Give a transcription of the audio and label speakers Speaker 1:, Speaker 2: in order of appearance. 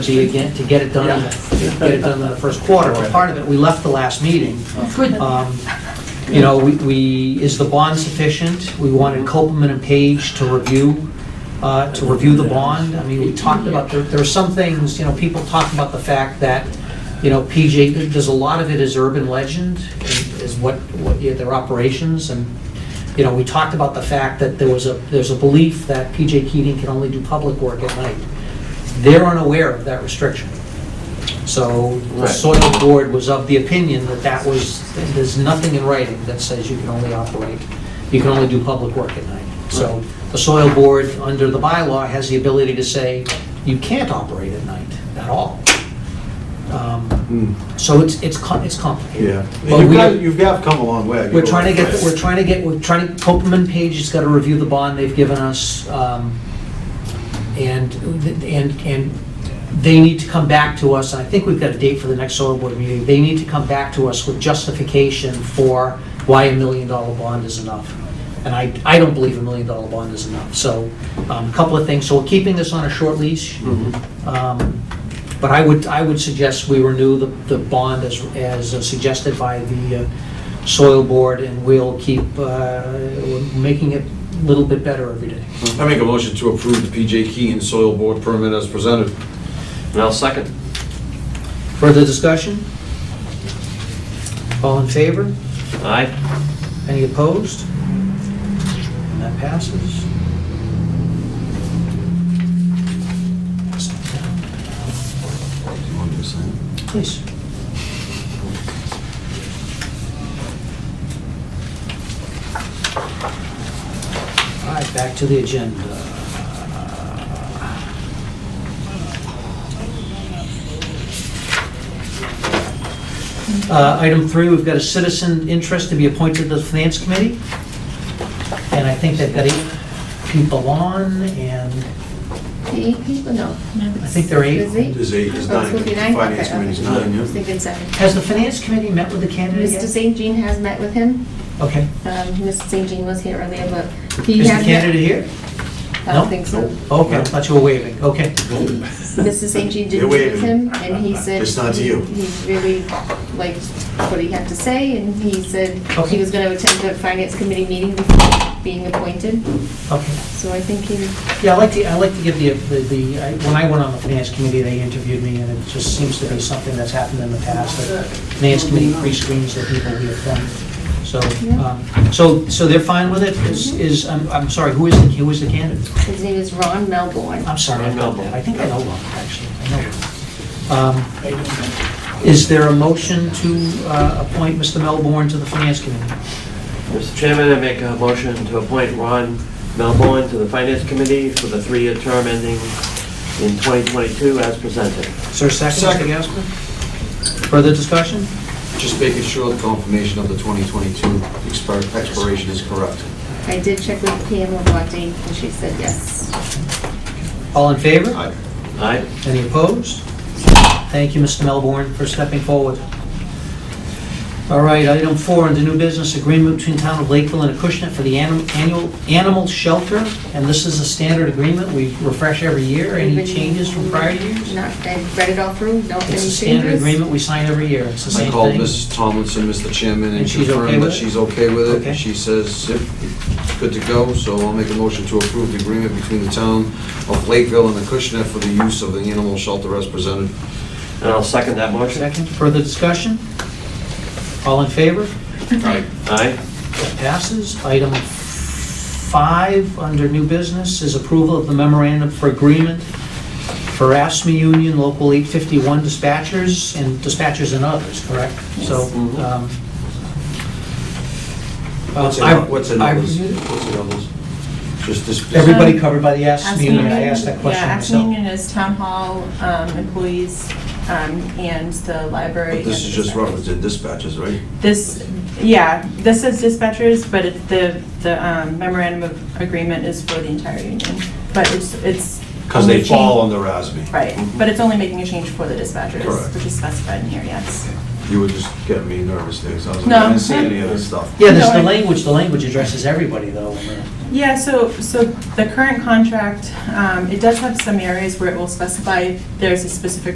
Speaker 1: be again, to get it done, to get it done in the first quarter. But part of it, we left the last meeting. Um, You know, we- we, is the bond sufficient? We wanted Copeland and Page to review, uh, to review the bond. I mean, we talked about, there there are some things, you know, people talk about the fact that, you know, PJ, there's a lot of it is urban legend, is what, what yeah, their operations, and, you know, we talked about the fact that there was a, there's a belief that PJ Keating can only do public work at night. They're unaware of that restriction. So the
Speaker 2: Right.
Speaker 1: soil board was of the opinion that that was, there's nothing in writing that says you can only operate, you can only do public work at night. So the soil board, under the bylaw, has the ability to say, you can't operate at night at all. Um, So it's, it's com- it's complicated.
Speaker 3: Hmm. Yeah,
Speaker 1: But
Speaker 3: you've
Speaker 1: we-
Speaker 3: got, you've got come a long way.
Speaker 1: We're trying to get, we're trying to get, we're trying to, Copeland Page has got to review the bond they've given us, um, and, and, and they need to come back to us, and I think we've got a date for the next soil board meeting, they need to come back to us with justification for why a million dollar bond is enough. And I, I don't believe a million dollar bond is enough, so, um, a couple of things, so we're keeping this on a short leash. Um, But I would, I would suggest we renew the, the bond as, as suggested by the uh, soil board, and we'll keep, uh, we're making it a little bit better every day.
Speaker 4: I make a motion to approve the PJ Key and Soil Board permit as presented.
Speaker 2: And I'll second.
Speaker 1: Further discussion? All in favor?
Speaker 2: Aye.
Speaker 1: Any opposed? And that passes. Please. All right, back to the agenda. Uh, Item three, we've got a citizen interest to be appointed to the Finance Committee. And I think they've got eight people on, and
Speaker 5: The eight people, no.
Speaker 1: I think there are eight.
Speaker 5: There's eight?
Speaker 3: There's eight, there's
Speaker 5: Oh, it's
Speaker 3: nine.
Speaker 5: supposed to be nine?
Speaker 3: Finance
Speaker 5: Okay,
Speaker 3: committee's
Speaker 5: okay.
Speaker 3: nine, yeah.
Speaker 5: I was thinking seven.
Speaker 1: has the Finance Committee met with the candidate
Speaker 5: Mr.
Speaker 1: yet?
Speaker 5: St. Jean has met with him.
Speaker 1: Okay.
Speaker 5: Um, Mr. St. Jean was here earlier, but he
Speaker 1: Is the
Speaker 5: has met-
Speaker 1: candidate here?
Speaker 5: I
Speaker 1: No?
Speaker 5: don't think so.
Speaker 1: Okay, I thought you were waving, okay.
Speaker 5: Mr. St. Jean did
Speaker 3: They're
Speaker 5: meet
Speaker 3: waving.
Speaker 5: with him, and he said...
Speaker 3: Uh, It's not
Speaker 5: he-
Speaker 3: you.
Speaker 5: He really liked what he had to say, and he said
Speaker 1: Okay.
Speaker 5: he was going to attend the Finance Committee meeting before being appointed,
Speaker 1: Okay.
Speaker 5: so I think he...
Speaker 1: Yeah, I like to, I like to give the, the- the, I- when I went on the finance committee, they interviewed me, and it just seems to be something that's happened in the past, that finance committee pre-screens the people we appoint. So, um, so, so they're fine with it? Is, is, I'm, I'm sorry, who is, the who is the candidate?
Speaker 5: His name is Ron Melbourne.
Speaker 1: I'm sorry, I know
Speaker 2: Melbourne.
Speaker 1: that. I think I know one, actually. I know one. Um, Is there a motion to uh, appoint Mr. Melbourne to the finance committee?
Speaker 2: Mr. Chairman, I make a motion to appoint Ron Melbourne to the Finance Committee for the three-year term ending in 2022 as presented.
Speaker 1: Is there a second, Mr.
Speaker 4: Second.
Speaker 1: Gasper? Further discussion?
Speaker 4: Just making sure the confirmation of the 2022 expir- expiration is correct.
Speaker 5: I did check with Pamela Bondi, and she said yes.
Speaker 1: All in favor?
Speaker 4: Aye.
Speaker 2: Aye.
Speaker 1: Any opposed? Thank you, Mr. Melbourne, for stepping forward. All right, item four, under new business, agreement between Town of Lakeville and Acushnet for the anim- annual animal shelter, and this is a standard agreement we refresh every year. Any changes from prior years?
Speaker 5: Not, I read it all through, no, any
Speaker 1: It's a
Speaker 5: changes?
Speaker 1: standard agreement we sign every year, it's the
Speaker 4: I
Speaker 1: same
Speaker 4: called
Speaker 1: thing.
Speaker 4: Mrs. Tomlinson, Mr. Chairman,
Speaker 1: And
Speaker 4: and
Speaker 1: she's okay
Speaker 4: confirmed
Speaker 1: with
Speaker 4: that
Speaker 1: it?
Speaker 4: she's okay with
Speaker 1: Okay.
Speaker 4: it. She says, yep, good to go, so I'll make a motion to approve the agreement between the town of Lakeville and the Acushnet for the use of the animal shelter as presented.
Speaker 2: And I'll second that motion.
Speaker 1: Second, further discussion? All in favor?
Speaker 4: Aye.
Speaker 2: Aye.
Speaker 1: That passes. Item five, under new business, is approval of the memorandum for agreement for ASME Union Local 851 dispatchers and dispatchers and others, correct? So, um...
Speaker 4: Mm-hmm. What's in
Speaker 1: I-
Speaker 4: what's in
Speaker 1: I-
Speaker 4: others? What's in others? Just this...
Speaker 1: Everybody covered by the ASME
Speaker 6: Asking
Speaker 1: Union, I asked that question
Speaker 6: Yeah,
Speaker 1: myself.
Speaker 6: Aspen Union is town hall um, employees um, and the library.
Speaker 4: But this
Speaker 6: and
Speaker 4: is just
Speaker 6: the-
Speaker 4: reference to dispatches, right?
Speaker 6: This, yeah, this is dispatchers, but it- the the um, memorandum of agreement is for the entire union. But it's, it's.
Speaker 3: Because they
Speaker 6: only
Speaker 3: fall
Speaker 6: change-
Speaker 3: under RASB.
Speaker 6: Right, but it's only making a change for the dispatchers,
Speaker 4: Correct.
Speaker 6: which is specified in here, yes.
Speaker 4: You were just getting me nervous there, so I was like,
Speaker 6: No.
Speaker 4: I didn't see any of this stuff.
Speaker 1: Yeah, there's the
Speaker 6: No, I-
Speaker 1: language, the language addresses everybody though. in the-
Speaker 6: Yeah, so, so the current contract, um, it does have some areas where it will specify if there's a specific